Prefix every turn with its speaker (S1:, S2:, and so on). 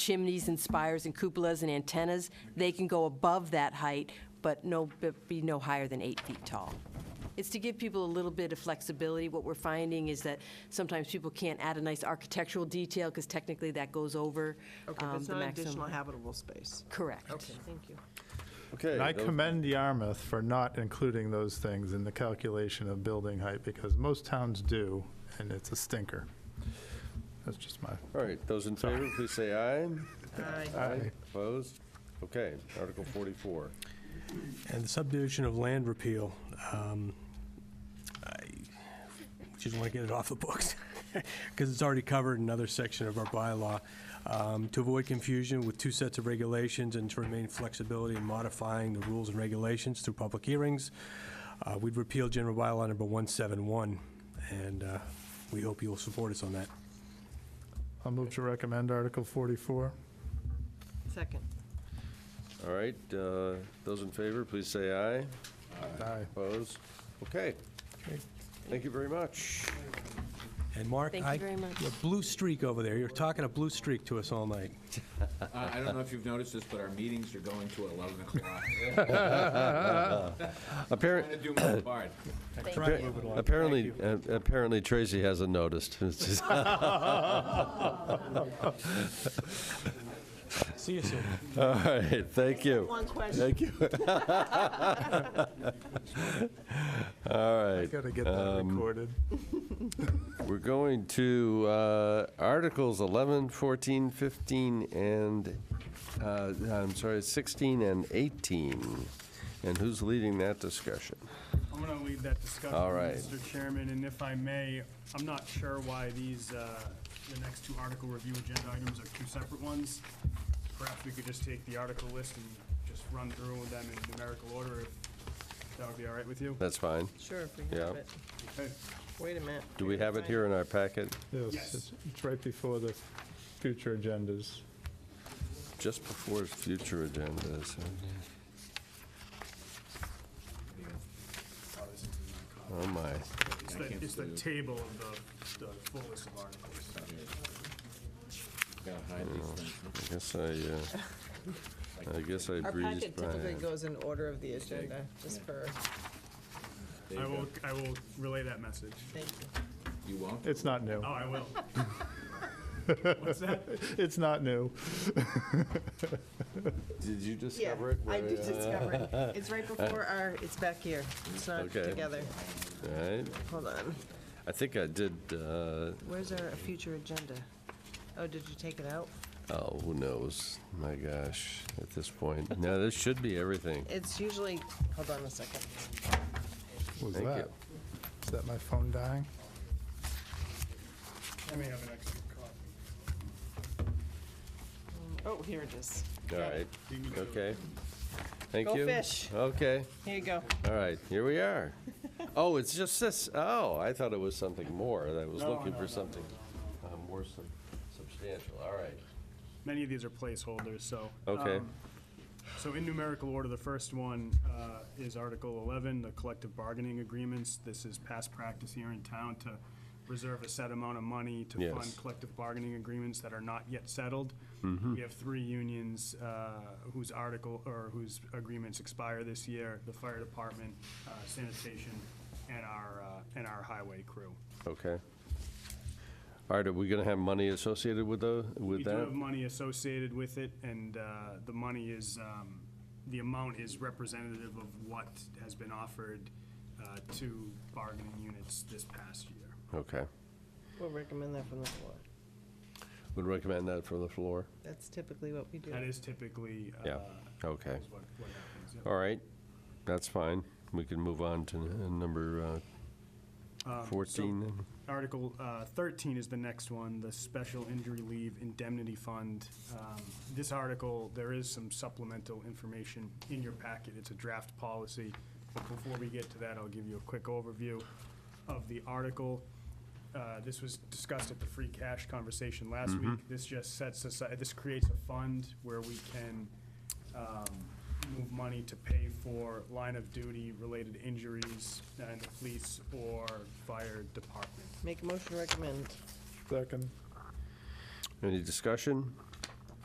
S1: chimneys and spires and cupolas and antennas, they can go above that height, but no, but be no higher than eight feet tall. It's to give people a little bit of flexibility. What we're finding is that sometimes people can't add a nice architectural detail, because technically that goes over
S2: Okay, but
S1: um,
S2: it's
S1: the
S2: not additional
S1: maximum.
S2: habitable space.
S1: Correct.
S2: Thank you.
S3: Okay.
S4: And I
S3: those-
S4: commend Yarmouth for not including those things in the calculation of building height, because most towns do, and it's a stinker. That's just my,
S3: All right, those in favor, please say aye.
S2: Aye.
S3: Opposed? Okay, Article 44.
S5: And the subdivision of land repeal, um, I just want to get it off the books, because it's already covered in another section of our bylaw. Um, To avoid confusion with two sets of regulations and to remain flexibility in modifying the rules and regulations through public hearings, uh, we'd repeal general bylaw number 171, and uh, we hope you'll support us on that.
S4: I'll move to recommend Article 44.
S3: Uh,
S2: Second.
S3: All right, uh, those in favor, please say aye.
S4: Aye.
S3: Opposed? Okay. Thank you very much.
S5: And Mark,
S1: Thank you
S5: I,
S1: very much.
S5: your blue streak over there, you're talking a blue streak to us all night.
S6: Uh, I don't know if you've noticed this, but our meetings are going to 11 o'clock. I'm
S3: Apparently,
S6: going to do my part.
S3: apparently, uh, apparently Tracy hasn't noticed. It's just-
S5: See you soon.
S3: All right, thank you.
S2: One question.
S3: Thank you. All right. Um,
S4: Got to get that recorded.
S3: We're going to uh, Articles 11, 14, 15, and, uh, I'm sorry, 16 and 18. And who's leading that discussion?
S7: I'm going to lead that discussion,
S3: All right.
S7: Mr. Chairman, and if I may, I'm not sure why these, uh, the next two article review agenda items are two separate ones. Perhaps we could just take the article list and just run through them in numerical order, if that would be all right with you?
S3: That's fine.
S2: Sure, if we
S3: Yeah.
S2: have it.
S7: Okay.
S2: Wait a minute.
S3: Do we have it here in our packet?
S4: Yes, it's- it's right before the future agendas.
S3: Just before future agendas. Oh, my.
S7: It's the, it's the table of the, the full list of articles.
S6: Gotta hide these things.
S3: I guess I, uh, I guess I
S2: Our
S3: breezed
S2: packet
S3: by.
S2: typically
S3: it.
S2: goes in order of the agenda, just for,
S6: There
S7: I
S6: you
S7: will,
S6: go.
S7: I will relay that message.
S2: thank you.
S6: You won't?
S4: It's not new.
S7: Oh, I will. What's that?
S4: It's not new.
S3: Did you
S2: Yeah,
S3: discover it?
S2: I
S3: Where,
S2: did
S3: uh,
S2: discover it. It's right before our, it's back here. It's not
S3: Okay.
S2: together.
S3: all right.
S2: Hold on.
S3: I think I did, uh,
S2: Where's our future agenda? Oh, did you take it out?
S3: Oh, who knows? My gosh, at this point. Now, this should be everything.
S2: It's usually, hold on a second.
S4: What was
S3: Thank
S4: that?
S3: you.
S4: Is that my phone dying?
S7: I may have an extra copy.
S2: Oh, here it is.
S3: All
S2: Got it.
S3: right, okay. Thank
S2: Go
S3: you.
S2: fish.
S3: Okay,
S2: Here you go.
S3: all right, here we are. Oh, it's just this, oh, I thought it was something more. I was looking for something uh, more sub- substantial, all right.
S7: Many of these are placeholders, so.
S3: Okay.
S7: um, So in numerical order, the first one uh, is Article 11, the collective bargaining agreements. This is past practice here in town to reserve a set amount of money to fund
S3: Yes.
S7: collective bargaining agreements that are not yet settled.
S3: Mm-hmm.
S7: We have three unions uh, whose article, or whose agreements expire this year, the fire department, uh, sanitation, and our, uh, and our highway crew.
S3: Okay. All right, are we going to have money associated with the,
S7: We
S3: with
S7: do
S3: that?
S7: have money associated with it, and uh, the money is, um, the amount is representative of what has been offered uh, to bargaining units this past year.
S3: Okay,
S2: We'll recommend that from the floor.
S3: would recommend that for the floor?
S2: That's typically what we do.
S7: That is typically. uh,
S3: Yeah, okay.
S7: is what- what happens, yeah.
S3: All right, that's fine. We can move on to n- number
S7: Um,
S3: uh, 14. then.
S7: Article uh, 13 is the next one, the Special Injury Leave Indemnity Fund. Um, This article, there is some supplemental information in your packet. It's a draft policy. But before we get to that, I'll give you a quick overview of the article. Uh, This was discussed at the free cash conversation last week. This just sets aside, this creates a fund where we can um, move money to pay for line of duty related injuries in the police or fire department.
S2: Make a motion to recommend.
S4: Second.
S3: Any discussion?